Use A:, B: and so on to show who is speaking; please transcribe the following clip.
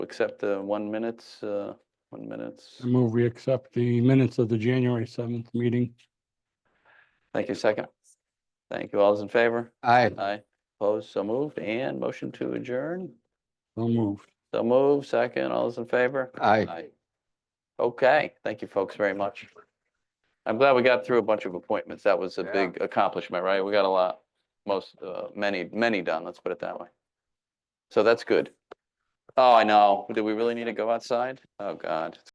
A: accept the one minutes, uh, one minutes.
B: I move we accept the minutes of the January seventh meeting.
A: Thank you, second. Thank you. All those in favor?
C: Aye.
A: Aye. Opposed, so moved. And motion to adjourn.
B: So moved.
A: So move, second. All those in favor?
C: Aye.
A: Okay, thank you folks very much. I'm glad we got through a bunch of appointments. That was a
C: Yeah.
A: big accomplishment, right? We got a lot, most, uh, many, many done, let's put it that way. So that's good. Oh, I know. Do we really need to go outside? Oh, God.